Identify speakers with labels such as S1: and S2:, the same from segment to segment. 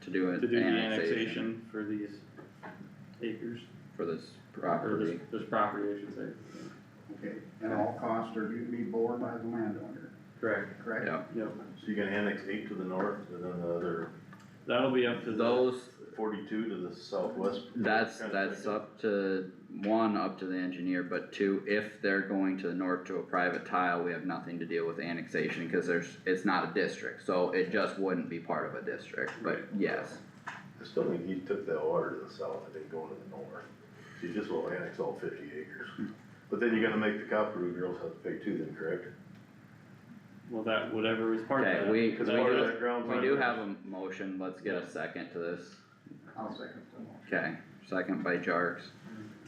S1: to do
S2: to
S1: an
S2: do the
S1: annexation
S2: annexation for these acres,
S1: for this
S2: or this,
S1: property.
S2: this property, I should say.
S3: Okay, and all costs are due to be borne by the landowner,
S2: Correct.
S3: correct?
S1: Yeah,
S2: Yep,
S4: So you can annex eight to the north and then the other
S2: that'll be up to the,
S1: those,
S4: forty-two to the southwest.
S1: that's,
S4: Kinda
S1: that's
S4: thinking.
S1: up to, one, up to the engineer, but two, if they're going to the north to a private tile, we have nothing to deal with annexation, cause there's, it's not a district, so it just wouldn't be part of a district, but yes.
S4: I still think he took that water to the south, I think going to the north, so you just will annex all fifty acres.
S1: Hmm.
S4: But then you're gonna make the Copperwood girls have to pay too then, correct?
S2: well, that, whatever was part of that.
S1: Okay, we, we
S4: Cause part of
S1: do,
S4: that ground.
S1: we do have a motion, let's get a second to this,
S3: I'll second the motion.
S1: okay, second by Jarks.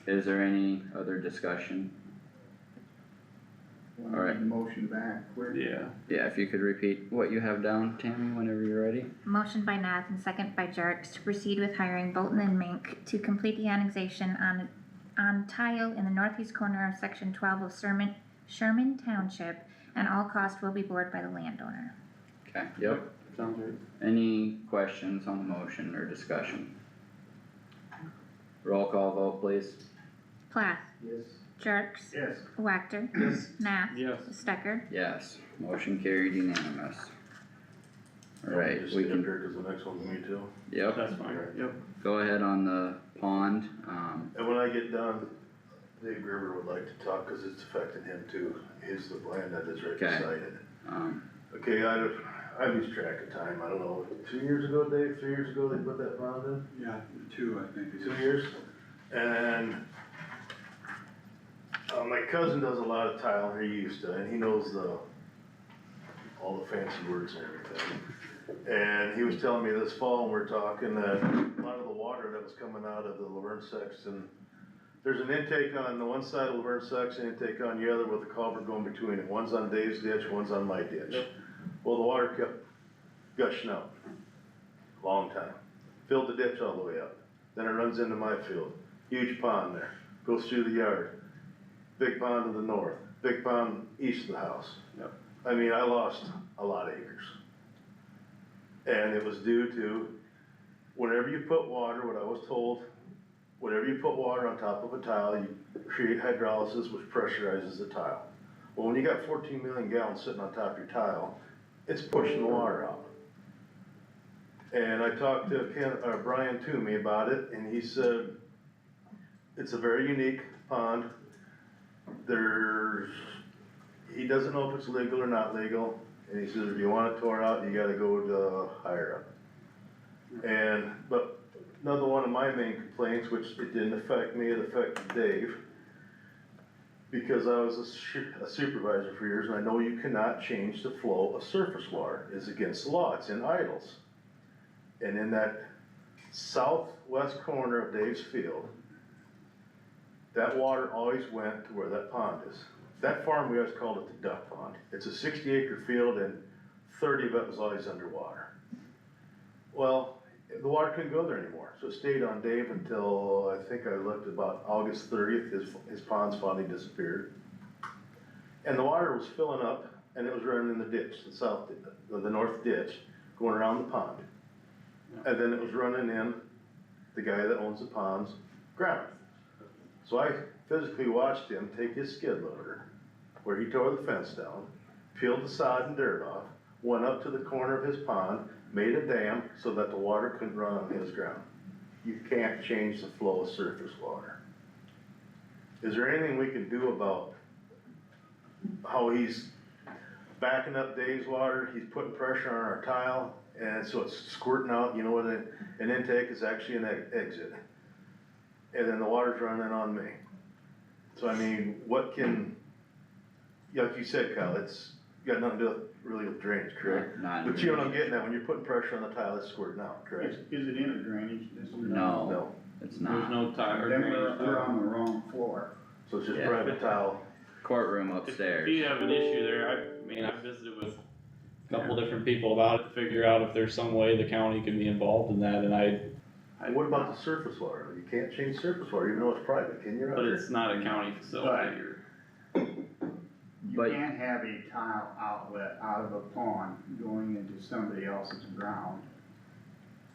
S1: Is there any other discussion?
S3: Wanna
S1: Alright.
S3: Motion back quick.
S2: Yeah,
S1: Yeah, if you could repeat what you have down, Tammy, whenever you're ready.
S5: Motion by Nath and second by Jerks to proceed with hiring Bolton and Mink to complete the annexation on, on tile in the northeast corner of section twelve of Sherman, Sherman Township, and all costs will be borne by the landowner.
S1: Okay. Yep.
S2: sounds right.
S1: Any questions on the motion or discussion? Roll call vote, please.
S5: Plath,
S3: Yes.
S5: Jerks,
S3: Yes.
S5: Wactor, Nath,
S2: Yes,
S5: Stecker,
S1: Yes, motion carried unanimous. Alright,
S4: Just
S1: we
S4: stay up
S1: can,
S4: here, cause the next one's me too.
S1: yep,
S2: that's fine, yep,
S1: go ahead on the pond, um,
S4: And when I get done, Dave River would like to talk, cause it's affecting him too, he's the land that is right
S1: Okay.
S4: beside it.
S1: um,
S4: Okay, I, don't- I lose track of time, I don't know, two years ago, Dave, three years ago, they put that bond in?
S6: Yeah, two, I think. it
S4: two
S6: is.
S4: years, and uh, my cousin does a lot of tile, he used to, and he knows the, all the fancy words and everything. And he was telling me this fall, we we're talking, that a lot of the water that was coming out of the Laverne Sexton, there's an intake on the one side of Laverne Sexton, intake on the other with a culvert going between it, one's on Dave's ditch, one's on my ditch.
S2: Yep.
S4: Well, the water kept gushing out, long time, filled the ditch all the way up. Then it runs into my field, huge pond there, goes through the yard, big pond to the north, big pond east of the house.
S2: Yep.
S4: I mean, I lost a lot of acres. And it was due to, whenever you put water, what I was told, whenever you put water on top of a tile, you create hydrolysis which pressurizes the tile. Well, when you got fourteen million gallons sitting on top of your tile, it's pushing the water out. And I talked to Ken, uh, Brian Toomey about it, and he said, it's a very unique pond. There's, he doesn't know if it's legal or not legal, and he says, if you want it tore out, you gotta go to higher up. And, but another one of my main complaints, which it didn't affect me, it affected Dave, because I was a su- a supervisor for years, and I know you cannot change the flow of surface water, it's against the law, it's in idles. And in that southwest corner of Dave's field, that water always went to where that pond is. That farm, we always called it the duck pond. It's a sixty acre field and thirty of it was always underwater. Well, the water couldn't go there anymore, so it stayed on Dave until, I think I looked about August thirtieth, his, his ponds finally disappeared. And the water was filling up and it was running in the ditch, the south, the, the north ditch, going around the pond. And then it was running in the guy that owns the ponds ground. So I physically watched him take his skid loader, where he tore the fence down, peeled the sod and dirt off, went up to the corner of his pond, made a dam so that the water couldn't run on his ground. You can't change the flow of surface water. Is there anything we can do about how he's backing up Dave's water, he's putting pressure on our tile, and so it's squirting out, you know, what an an intake is actually an e- exit. And then the water's running on me. So I mean, what can, yeah, like you said, Kyle, it's got nothing to do with- really with drainage, correct?
S1: not.
S4: But you know what I'm getting at, when you're putting pressure on the tile, it's squirting out,
S3: Is,
S4: correct?
S3: is it in a drainage district?
S1: No,
S4: No,
S1: it's
S2: there's
S1: not.
S2: no tile or
S3: Then we're,
S2: drainage.
S3: we're
S2: tile.
S3: on the wrong floor.
S4: so it's just
S1: Yeah.
S4: private tile,
S1: Courtroom
S2: If you
S1: upstairs,
S2: have an issue there, I mean, I visited with a couple different people about it to figure out if there's some way the county can be involved in that, and I. I-
S4: and what about the surface water? You can't change surface water, even though it's private, can you?
S2: But it's not a county facility,
S3: Right.
S2: or,
S3: You
S1: But-
S3: can't have a tile outlet out of a pond going into somebody else's ground